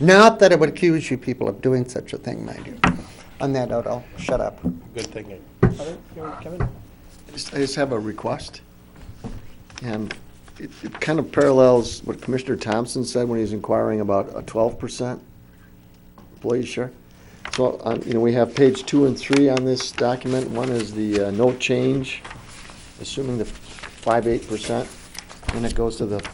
Not that I would accuse you people of doing such a thing, mind you. On that note, I'll shut up. Good thinking. Other- you- Kevin? just- I just have a request. And it, it kind of parallels what Commissioner Thompson said when he was inquiring about a twelve percent employee share. So, on, you know, we have page two and three on this document. One is the uh, no change, assuming the five, eight percent. And it goes to the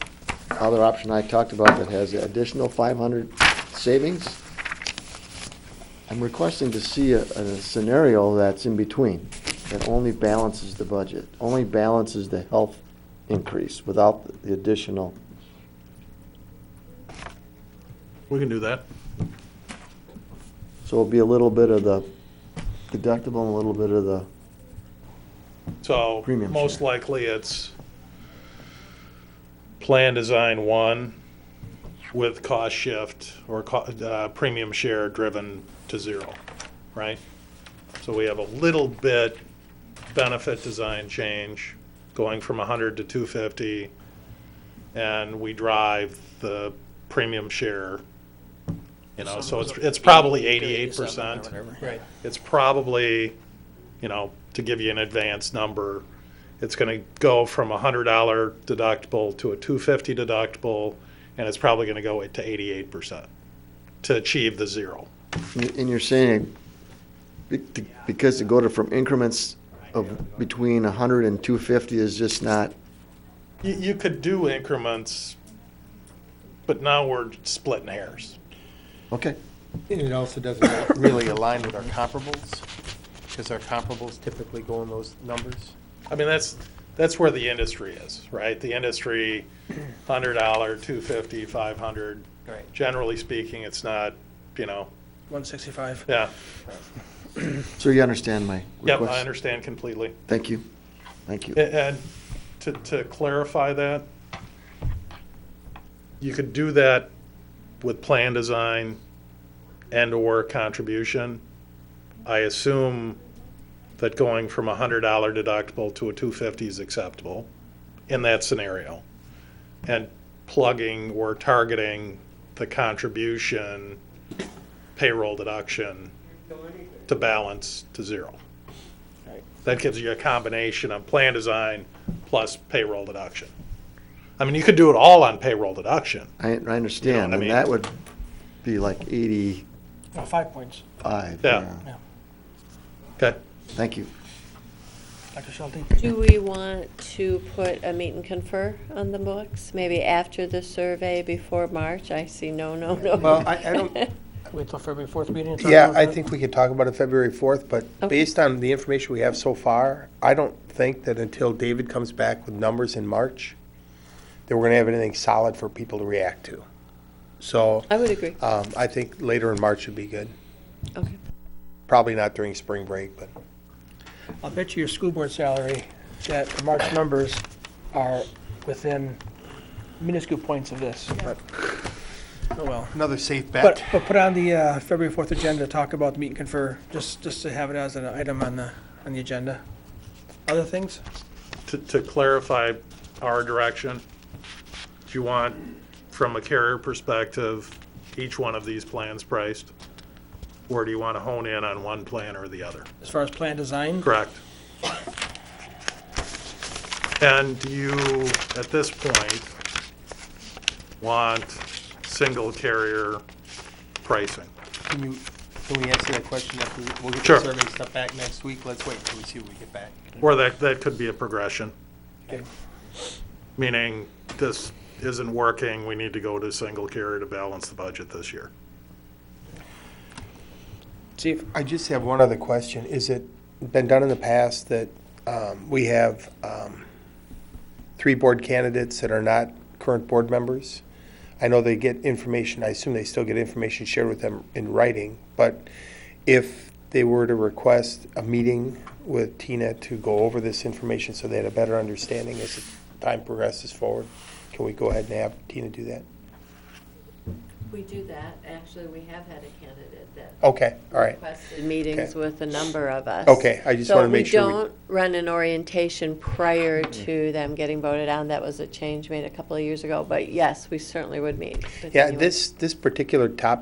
other option I talked about that has additional five hundred savings. I'm requesting to see a, a scenario that's in between, that only balances the budget, only balances the health increase without the additional. We can do that. So it'll be a little bit of the deductible and a little bit of the, So Premium most share. likely it's plan design one with cost shift or co- uh, premium share driven to zero, right? So we have a little bit benefit design change going from 100 to 250, and we drive the premium share, you know, so it's, it's probably 88%. Right. it's probably, you know, to give you an advanced number, it's gonna go from a hundred dollar deductible to a two fifty deductible, and it's probably gonna go to eighty-eight percent to achieve the zero. and you're saying, be- because to go to from increments of between 100 and 250 is just not, You, you could do increments, but now we're splitting hairs. okay. And it also doesn't really align with our comparables, because our comparables typically go in those numbers. I mean, that's, that's where the industry is, right? The industry, hundred dollar, two fifty, five hundred. Right. Generally speaking, it's not, you know, 165. yeah, So you understand my yep, request? I understand completely. Thank you, thank you. A- And to, to clarify that, you could do that with plan design and/or contribution. I assume that going from a hundred dollar deductible to a two fifty is acceptable in that scenario. And plugging or targeting the contribution payroll deduction to balance to zero. That gives you a combination of plan design plus payroll deduction. I mean, you could do it all on payroll deduction. I, I understand, I and mean? that would be like 85. Oh, Five points. Yeah. yeah. Okay. Thank you. Dr. Schulte? Do we want to put a meet and confer on the books? Maybe after the survey, before March? I see no, no, no. Well, I- I don't- Wait till February 4th meeting? and talk Yeah, about I that? think we could talk about it February 4th, but Okay. based on the information we have so far, I don't think that until David comes back with numbers in March, that we're going to have anything solid for people to react to. So I would agree. um, I think later in March would be good. Okay. Probably not during spring break, but I'll bet you your school board salary that the March numbers are within minuscule points of this, but, oh well. another safe But, bet. but put on the uh, February 4th agenda, talk about the meet and confer, just, just to have it as an item on the, on the agenda. Other things? To, to clarify our direction, do you want, from a carrier perspective, each one of these plans priced? Or do you want to hone in on one plan or the other? As far as plan design? Correct. And do you, at this point, want single carrier pricing? Can you, can we answer that question after, we- we'll get Sure. the survey stuff back next week? Let's wait until we see what we get back. Or that, that could be a progression. Okay. Meaning, this isn't working, we need to go to single carrier to balance the budget this year. Chief? I just have one other question. Is it been done in the past that um, we have um, three board candidates that are not current board members? I know they get information, I assume they still get information shared with them in writing, but if they were to request a meeting with Tina to go over this information so they had a better understanding as time progresses forward, can we go ahead and have Tina do that? We do that. Actually, we have had a candidate that Okay, all right. requested meetings Okay. with a number of us. Okay, I just wanna make sure we- So we don't run an orientation prior to them getting voted on. That was a change made a couple of years ago, but yes, we certainly would meet. with Yeah, anyone. this, this particular topic